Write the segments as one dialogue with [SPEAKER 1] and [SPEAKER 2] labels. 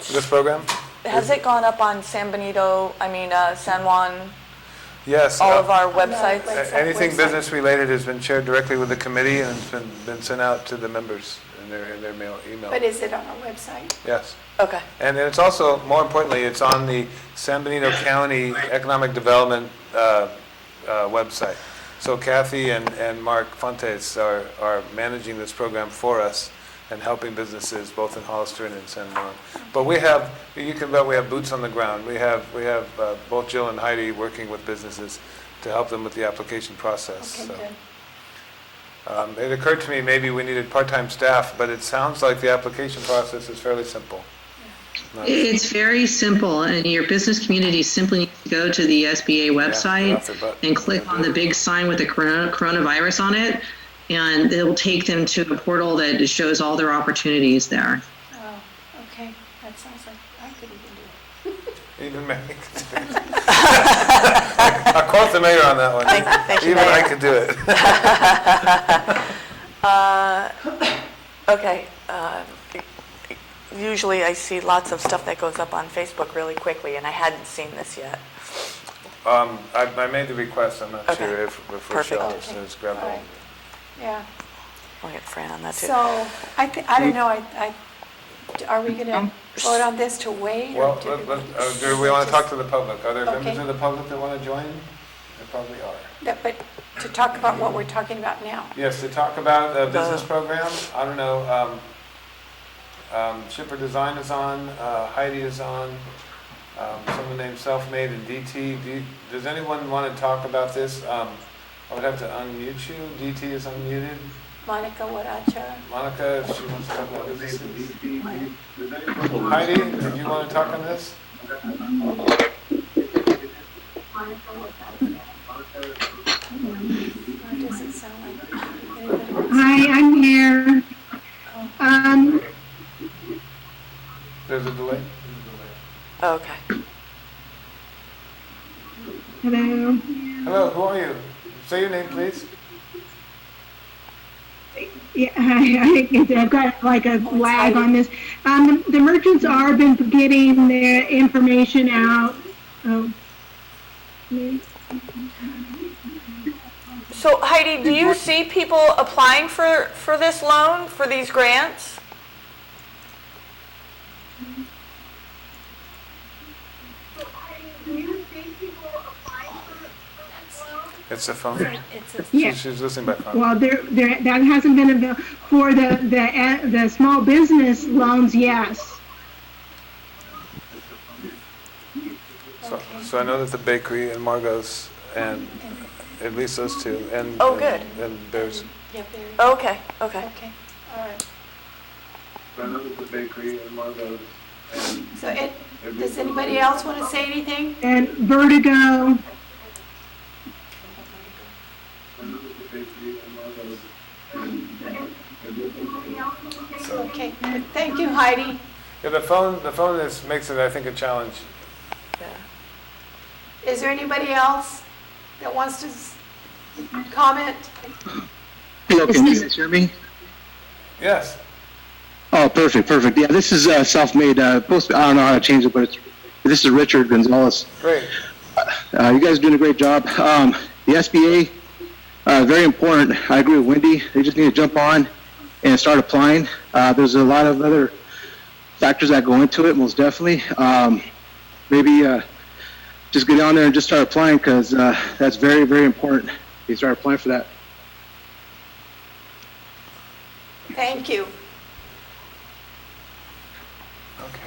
[SPEAKER 1] for this program?
[SPEAKER 2] Has it gone up on San Benito, I mean, uh, San Juan,
[SPEAKER 1] Yes.
[SPEAKER 2] all
[SPEAKER 1] uh,
[SPEAKER 2] of our
[SPEAKER 3] On the
[SPEAKER 2] websites?
[SPEAKER 3] website.
[SPEAKER 1] a- Anything
[SPEAKER 3] website.
[SPEAKER 1] business related has been shared directly with the committee and it's been, been sent out to the members in their, in their mail, email.
[SPEAKER 3] But is it on our website?
[SPEAKER 1] Yes.
[SPEAKER 2] Okay.
[SPEAKER 1] And then it's also, more importantly, it's on the San Benito County Economic Development uh, uh, website. So Kathy and, and Mark Fontes are, are managing this program for us and helping businesses both in Hollister and in San Juan. But we have, you can bet we have boots on the ground. We have, we have uh, both Jill and Heidi working with businesses to help them with the application process.
[SPEAKER 3] Okay,
[SPEAKER 1] So,
[SPEAKER 3] good.
[SPEAKER 1] um, It occurred to me, maybe we needed part-time staff, but it sounds like the application process is fairly simple. Not-
[SPEAKER 4] It's very simple, and your business community simply needs to go to the
[SPEAKER 1] off
[SPEAKER 4] SBA
[SPEAKER 1] their butt.
[SPEAKER 4] website and click on the big sign with the corona- coronavirus on it, and it'll take them to a portal that shows all their opportunities there.
[SPEAKER 3] Oh, okay, that sounds like I could even do it.
[SPEAKER 1] Even Mary could do it. I quote the mayor on that one.
[SPEAKER 2] thank you,
[SPEAKER 1] Even I
[SPEAKER 2] Mayor.
[SPEAKER 1] could do it.
[SPEAKER 2] Uh, Okay. um, Usually I see lots of stuff that goes up on Facebook really quickly, and I hadn't seen this yet.
[SPEAKER 1] Um, I, I made the request, I'm not
[SPEAKER 2] Okay.
[SPEAKER 1] sure if, if
[SPEAKER 2] Perfect.
[SPEAKER 1] Rochelle has grabbed
[SPEAKER 3] All
[SPEAKER 1] hold.
[SPEAKER 3] right. Yeah,
[SPEAKER 2] I'll get Fran on that, too.
[SPEAKER 3] so, I, thi- I don't know, I, I, are we gonna vote on this to wait? or
[SPEAKER 1] Um, Well,
[SPEAKER 3] to-
[SPEAKER 1] let, let, uh, do we want to talk to the public? Are there members
[SPEAKER 3] Okay.
[SPEAKER 1] of the public that want to join? There probably are.
[SPEAKER 3] That- But to talk about what we're talking about now.
[SPEAKER 1] Yes, to talk about a business program, I don't know, um, um, Shipper Design is on, uh, Heidi is on, um, someone named Selfmade and DT. Do you- Does anyone want to talk about this? Um, I would have to unmute you. DT is unmuted.
[SPEAKER 3] Monica Waracha,
[SPEAKER 1] Monica, if she wants to talk about this. Heidi, did you want to talk on this?
[SPEAKER 3] or does it sound like anybody wants?
[SPEAKER 5] Hi, I'm here. Um,
[SPEAKER 1] There's a delay.
[SPEAKER 2] Okay.
[SPEAKER 5] hello.
[SPEAKER 1] Hello, who are you? Say your name, please.
[SPEAKER 5] Yeah, I, I, I've got like a lag on this. Um, the merchants are been getting their information out. Oh.
[SPEAKER 2] So Heidi, do you see people applying for, for this loan, for these grants?
[SPEAKER 1] It's a phone.
[SPEAKER 3] It's a-
[SPEAKER 5] Yeah.
[SPEAKER 1] She's listening by phone.
[SPEAKER 5] Well, there, there, that hasn't been avail- for the, the, uh, the small business loans, yes.
[SPEAKER 1] So, so I know that the bakery and Margot's and at least those two and.
[SPEAKER 2] Oh,
[SPEAKER 1] and-
[SPEAKER 2] good.
[SPEAKER 1] And there's.
[SPEAKER 3] Yeah, there,
[SPEAKER 2] Okay, okay.
[SPEAKER 3] okay, all right.
[SPEAKER 1] I know that the bakery and Margot's and.
[SPEAKER 3] So it, does anybody else want to say anything?
[SPEAKER 5] And Vertigo,
[SPEAKER 3] Okay, thank you Heidi.
[SPEAKER 1] Yeah, the phone, the phone is, makes it, I think, a challenge.
[SPEAKER 2] Yeah.
[SPEAKER 3] Is there anybody else that wants to s- comment?
[SPEAKER 6] Hello, can you guys hear me?
[SPEAKER 1] Yes,
[SPEAKER 6] Oh, perfect, perfect. Yeah, this is uh, self-made. Uh, post. I don't know how to change it, but it's. This is Richard Gonzalez.
[SPEAKER 1] great.
[SPEAKER 6] Uh, you guys are doing a great job. Um, the SBA, uh, very important. I agree with Wendy. They just need to jump on and start applying. Uh, there's a lot of other factors that go into it, most definitely. Um, maybe uh, just get on there and just start applying because uh, that's very, very important. You start applying for that.
[SPEAKER 3] Thank you.
[SPEAKER 1] Okay.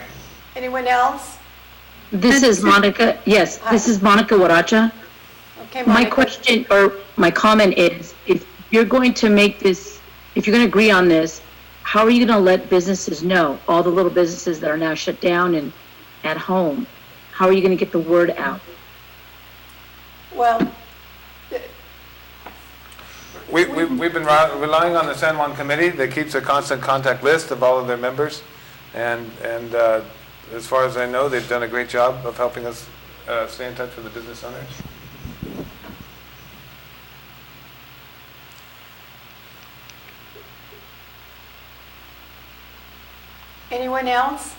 [SPEAKER 3] Anyone else?
[SPEAKER 7] This is Monica, yes, this is Monica Waracha.
[SPEAKER 3] Okay,
[SPEAKER 7] My
[SPEAKER 3] Monica.
[SPEAKER 7] question, or my comment is, if you're going to make this, if you're going to agree on this, how are you going to let businesses know, all the little businesses that are now shut down and at home? How are you going to get the word out?
[SPEAKER 3] Well,
[SPEAKER 1] We, we, we've been ri- relying on the San Juan Committee that keeps a constant contact list of all of their members. And, and uh, as far as I know, they've done a great job of helping us uh, stay in touch with the business owners.
[SPEAKER 3] anyone else?